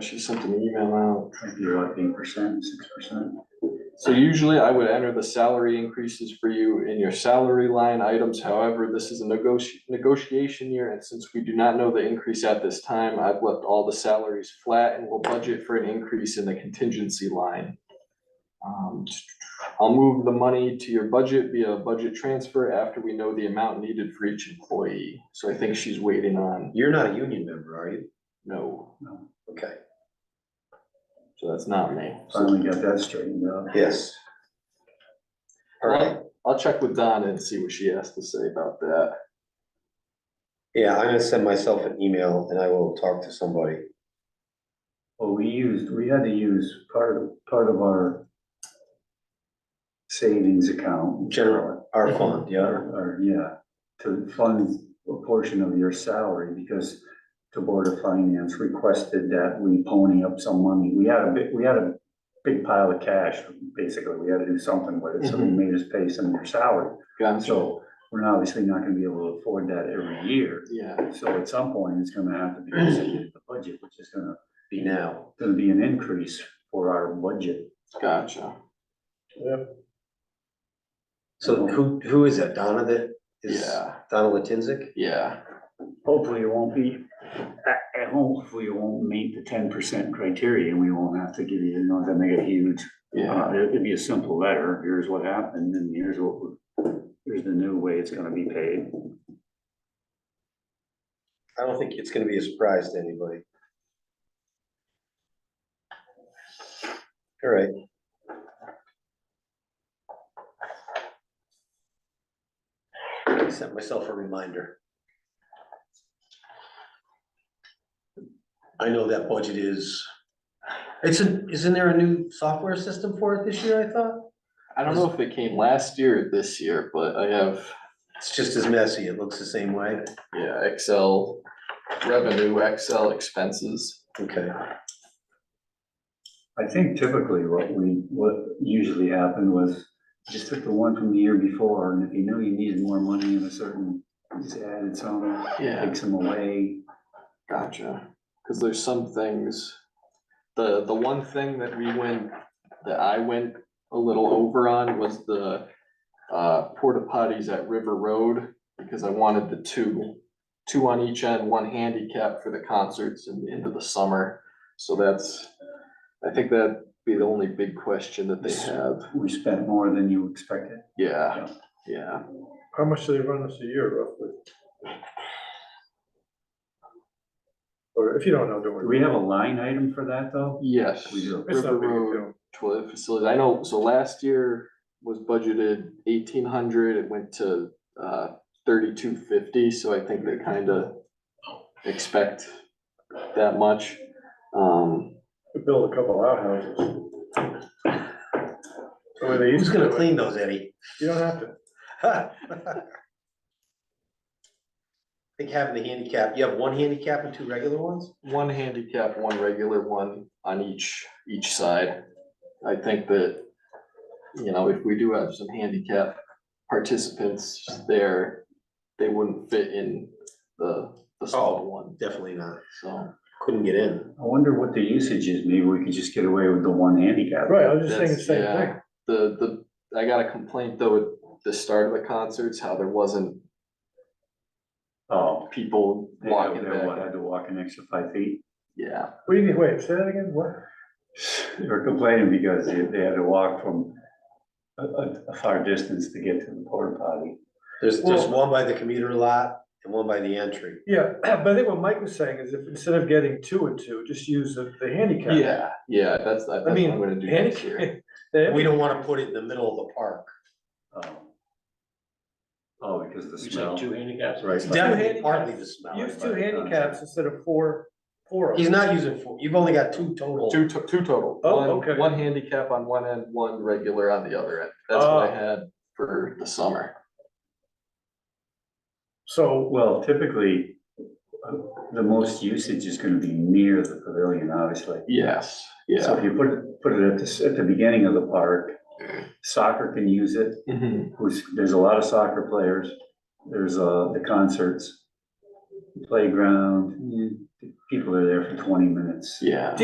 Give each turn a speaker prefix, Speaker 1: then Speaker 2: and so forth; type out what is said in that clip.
Speaker 1: She sent an email out.
Speaker 2: It'd be like eight percent, six percent.
Speaker 1: So usually I would enter the salary increases for you in your salary line items. However, this is a negoti- negotiation year. And since we do not know the increase at this time, I've left all the salaries flat and will budget for an increase in the contingency line. Um, I'll move the money to your budget via budget transfer after we know the amount needed for each employee. So I think she's waiting on,
Speaker 3: You're not a union member, are you?
Speaker 1: no,
Speaker 3: Okay,
Speaker 1: so that's not me.
Speaker 2: Finally got that straightened out.
Speaker 3: yes. All right,
Speaker 1: I'll check with Donna and see what she has to say about that.
Speaker 3: yeah, I'm gonna send myself an email and I will talk to somebody.
Speaker 2: Well, we used, we had to use part of, part of our savings account.
Speaker 3: General. Our fund, yeah,
Speaker 2: Or, or, yeah, to fund a portion of your salary because the Board of Finance requested that we pony up some money. We had a big, we had a big pile of cash, basically. We had to do something with it, so
Speaker 3: Mm-hmm.
Speaker 2: they made us pay some of your salary.
Speaker 1: Gotcha.
Speaker 2: So we're obviously not gonna be able to afford that every year.
Speaker 1: Yeah,
Speaker 2: So at some point, it's gonna have to be considered in the budget, which is gonna,
Speaker 3: be now.
Speaker 2: gonna be an increase for our budget.
Speaker 1: gotcha.
Speaker 3: So who, who is that? Donna that is,
Speaker 1: Yeah,
Speaker 3: Donna Latinsick?
Speaker 1: yeah,
Speaker 2: Hopefully it won't be, I, I hopefully it won't meet the ten percent criteria and we won't have to give you, you know, that make it huge.
Speaker 1: yeah,
Speaker 2: Uh, it- it'd be a simple letter, here's what happened and here's what, we're- here's the new way it's gonna be paid.
Speaker 3: I don't think it's gonna be a surprise to anybody. All right, I sent myself a reminder. I know that budget is, it's a, isn't there a new software system for it this year, I thought?
Speaker 1: I don't know if it came last year or this year, but I have,
Speaker 3: It's just as messy, it looks the same way,
Speaker 1: yeah, Excel revenue, Excel expenses.
Speaker 3: okay.
Speaker 2: I think typically what we, what usually happened was just took the one from the year before, and if you knew you needed more money in a certain, you just added some,
Speaker 1: Yeah,
Speaker 2: take some away.
Speaker 1: gotcha. Cause there's some things, the, the one thing that we went, that I went a little over on was the uh, porta potties at River Road, because I wanted the two, two on each end, one handicap for the concerts and into the summer. So that's, I think that'd be the only big question that they have.
Speaker 2: We spent more than you expected.
Speaker 1: Yeah, yeah.
Speaker 4: How much do they run us a year roughly? Or if you don't know, don't
Speaker 2: Do
Speaker 4: worry.
Speaker 2: we have a line item for that, though?
Speaker 1: Yes.
Speaker 2: We do.
Speaker 4: It's
Speaker 1: River
Speaker 4: not big a
Speaker 1: Road
Speaker 4: deal.
Speaker 1: toilet facilities. I know, so last year was budgeted eighteen hundred, it went to uh thirty-two fifty, so I think they kinda expect that much. Um,
Speaker 4: We Build a couple outhouses. The way they used
Speaker 3: Who's
Speaker 4: to
Speaker 3: gonna
Speaker 4: do it.
Speaker 3: clean those, Eddie?
Speaker 4: You don't have to.
Speaker 3: I think having the handicap, you have one handicap and two regular ones?
Speaker 1: one handicap, one regular, one on each, each side. I think that, you know, if we do have some handicap participants there, they wouldn't fit in the, the small one,
Speaker 3: Definitely not.
Speaker 1: so.
Speaker 3: Couldn't get in.
Speaker 2: I wonder what the usage is. Maybe we could just get away with the one handicap.
Speaker 4: Right, I was just saying the
Speaker 1: That's-
Speaker 4: same
Speaker 1: yeah.
Speaker 4: thing.
Speaker 1: The, the, I got a complaint though at the start of the concerts, how there wasn't
Speaker 2: Oh,
Speaker 1: people
Speaker 2: they had
Speaker 1: walking
Speaker 2: they
Speaker 1: back.
Speaker 2: had to walk an extra five feet.
Speaker 1: Yeah,
Speaker 4: What do you mean, wait, say that again, what?
Speaker 2: They were complaining because they, they had to walk from a, a, a far distance to get to the porta potty.
Speaker 3: There's, there's
Speaker 4: Well-
Speaker 3: one by the commuter lot and one by the entry.
Speaker 4: Yeah, but I think what Mike was saying is if instead of getting two and two, just use the, the handicap.
Speaker 1: yeah, yeah, that's, that's what
Speaker 4: mean,
Speaker 1: I'm gonna do next year.
Speaker 4: Handicap. They-
Speaker 3: We don't wanna put it in the middle of the park.
Speaker 2: Oh. Oh, because the smell.
Speaker 5: handicaps.
Speaker 3: Right.
Speaker 4: Two
Speaker 3: Definitely
Speaker 4: handicaps.
Speaker 3: partly the smell.
Speaker 4: Use two handicaps instead of four, four. of
Speaker 3: He's
Speaker 4: them.
Speaker 3: not using four, you've only got two total.
Speaker 1: Two, to- two total.
Speaker 4: Oh,
Speaker 1: One-
Speaker 4: okay.
Speaker 1: One handicap on one end, one regular on the other end. That's what I
Speaker 4: Oh.
Speaker 1: had for the summer.
Speaker 4: So,
Speaker 2: Well, typically, uh, the most usage is gonna be near the pavilion, obviously.
Speaker 1: Yes,
Speaker 2: So
Speaker 1: yeah.
Speaker 2: if you put, it- put it at the, s- at the beginning of the park, soccer can use it,
Speaker 1: Mhm.
Speaker 2: who's, there's a lot of soccer players, there's, uh, the concerts, playground, mm, people are there for twenty minutes.
Speaker 1: Yeah.